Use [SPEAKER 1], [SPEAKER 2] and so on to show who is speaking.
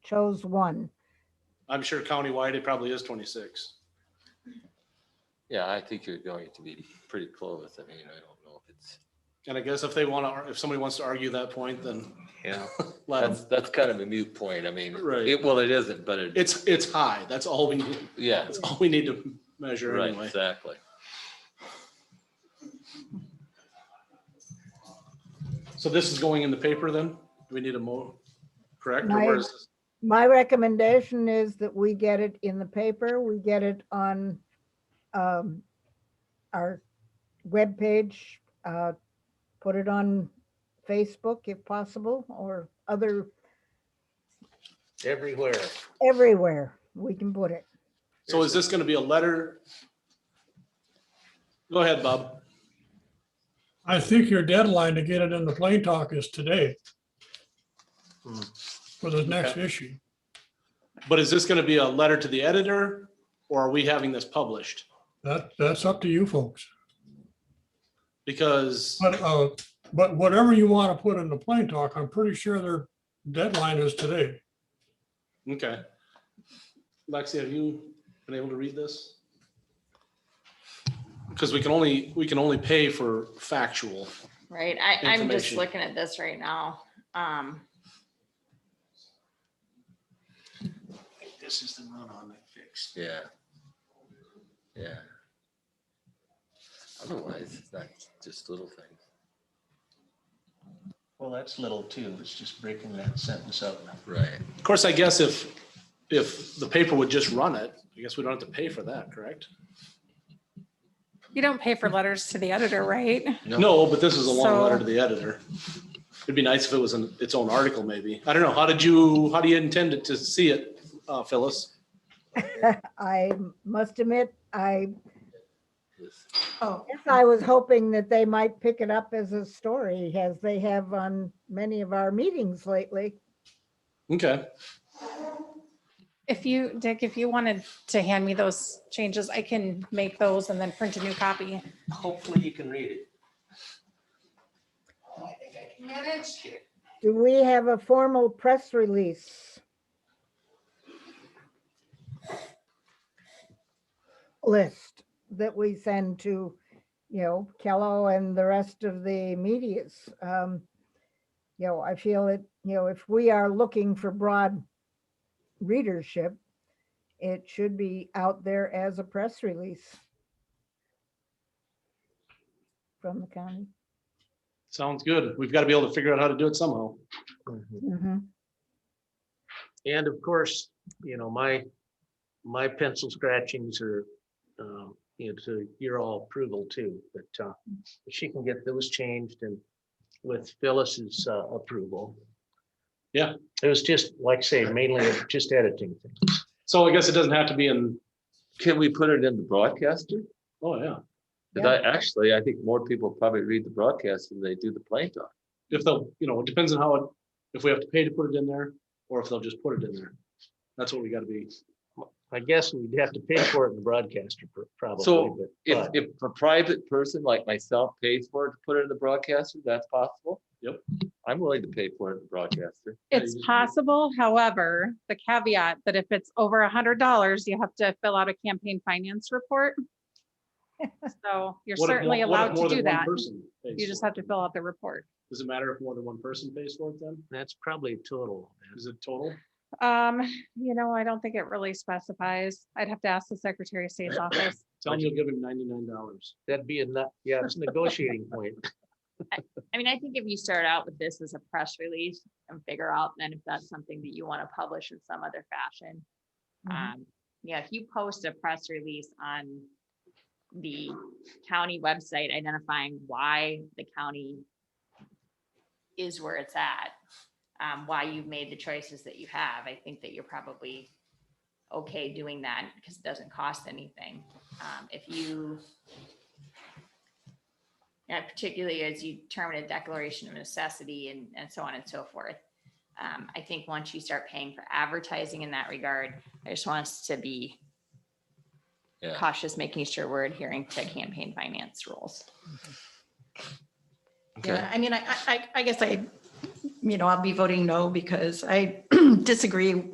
[SPEAKER 1] chose one.
[SPEAKER 2] I'm sure countywide, it probably is twenty-six.
[SPEAKER 3] Yeah, I think you're going to be pretty close. I mean, I don't know if it's,
[SPEAKER 2] And I guess if they want to, if somebody wants to argue that point, then
[SPEAKER 3] yeah,
[SPEAKER 2] let 'em.
[SPEAKER 3] that's, that's kind of a moot point. I mean,
[SPEAKER 2] Right.
[SPEAKER 3] it, well, it isn't, but it,
[SPEAKER 2] It's, it's high. That's all we, need.
[SPEAKER 3] yeah,
[SPEAKER 2] that's all we need to measure
[SPEAKER 3] right,
[SPEAKER 2] anyway.
[SPEAKER 3] exactly.
[SPEAKER 2] So this is going in the paper then? Do we need a mo, correct? Or
[SPEAKER 1] My-
[SPEAKER 2] where is this?
[SPEAKER 1] My recommendation is that we get it in the paper, we get it on um, our webpage, uh, put it on Facebook if possible, or other,
[SPEAKER 4] everywhere.
[SPEAKER 1] everywhere we can put it.
[SPEAKER 2] So is this going to be a letter? Go ahead, Bob.
[SPEAKER 5] I think your deadline to get it in the plain talk is today.
[SPEAKER 2] Hmm.
[SPEAKER 5] For the next issue.
[SPEAKER 2] But is this going to be a letter to the editor or are we having this published?
[SPEAKER 5] That, that's up to you folks.
[SPEAKER 2] Because,
[SPEAKER 5] But, uh, but whatever you want to put in the plain talk, I'm pretty sure their deadline is today.
[SPEAKER 2] okay. Lexi, have you been able to read this? Because we can only, we can only pay for factual.
[SPEAKER 6] Right, I, I'm just
[SPEAKER 2] Information.
[SPEAKER 6] looking at this right now. Um,
[SPEAKER 2] This is the run on that fixed.
[SPEAKER 3] Yeah. Yeah. Otherwise, it's not just little things.
[SPEAKER 4] Well, that's little too. It's just breaking that sentence up.
[SPEAKER 3] Right.
[SPEAKER 2] Of course, I guess if, if the paper would just run it, I guess we don't have to pay for that, correct?
[SPEAKER 7] You don't pay for letters to the editor, right?
[SPEAKER 2] No, but this is a long
[SPEAKER 7] So-
[SPEAKER 2] letter to the editor. It'd be nice if it was in its own article, maybe. I don't know. How did you, how do you intend it to see it, uh, Phyllis?
[SPEAKER 1] I must admit, I
[SPEAKER 3] Yes.
[SPEAKER 7] Oh,
[SPEAKER 1] guess I was hoping that they might pick it up as a story, as they have on many of our meetings lately.
[SPEAKER 2] Okay,
[SPEAKER 7] if you, Dick, if you wanted to hand me those changes, I can make those and then print a new copy.
[SPEAKER 4] Hopefully you can read it.
[SPEAKER 1] Do we have a formal press release? List that we send to, you know, Kello and the rest of the medias. Um, You know, I feel it, you know, if we are looking for broad readership, it should be out there as a press release from the county.
[SPEAKER 2] sounds good. We've got to be able to figure out how to do it somehow.
[SPEAKER 1] Mhm.
[SPEAKER 4] Mm-hmm. And of course, you know, my, my pencil scratchings are, um, you know, to your all approval too, but, uh, if she can get those changed and with Phyllis's, uh, approval.
[SPEAKER 2] Yeah.
[SPEAKER 4] It was just, like I say, mainly just editing things.
[SPEAKER 2] So I guess it doesn't have to be in,
[SPEAKER 3] Can we put it in the broadcaster?
[SPEAKER 2] oh yeah,
[SPEAKER 3] Cause I actually, I think more people probably read the broadcast than they do the plain talk.
[SPEAKER 2] if they'll, you know, it depends on how, it if we have to pay to put it in there or if they'll just put it in there. That's what we got to be.
[SPEAKER 4] I guess we'd have to pay for it in the broadcaster pr- probably.
[SPEAKER 3] So
[SPEAKER 4] but-
[SPEAKER 3] If,
[SPEAKER 4] but-
[SPEAKER 3] if a private person like myself pays for it to put it in the broadcaster, that's possible.
[SPEAKER 2] Yep.
[SPEAKER 3] I'm willing to pay for it in the broadcaster.
[SPEAKER 2] Yeah,
[SPEAKER 7] It's
[SPEAKER 2] you just-
[SPEAKER 7] possible, however, the caveat that if it's over a hundred dollars, you have to fill out a campaign finance report. So you're
[SPEAKER 2] What if
[SPEAKER 7] certainly
[SPEAKER 2] more- what if
[SPEAKER 7] allowed
[SPEAKER 2] more than
[SPEAKER 7] to do
[SPEAKER 2] one
[SPEAKER 7] that.
[SPEAKER 2] person pays
[SPEAKER 7] You just
[SPEAKER 2] for it?
[SPEAKER 7] have to fill out the report.
[SPEAKER 2] Does it matter if more than one person pays for it then?
[SPEAKER 4] That's probably a total. man.
[SPEAKER 2] Is it total?
[SPEAKER 7] Um, you know, I don't think it really specifies. I'd have to ask the Secretary of State's office.
[SPEAKER 2] Tell me you'll give him ninety-nine dollars.
[SPEAKER 4] That'd be a nut, yeah, it's a negotiating point.
[SPEAKER 6] I mean, I think if you start out with this as a press release and figure out then if that's something that you want to publish in some other fashion.
[SPEAKER 1] Mhm.
[SPEAKER 6] Um, yeah, if you post a press release on the county website identifying why the county is where it's at, um, why you've made the choices that you have, I think that you're probably okay doing that because it doesn't cost anything. Um, if you yeah, uh, particularly as you term it a declaration of necessity and, and so on and so forth. Um, I think once you start paying for advertising in that regard, I just want us to be
[SPEAKER 3] Yeah.
[SPEAKER 6] cautious, making sure we're adhering to campaign finance rules.
[SPEAKER 3] Okay.
[SPEAKER 8] Yeah, I mean, I, I- I, I guess I, you know, I'll be voting no because I disagree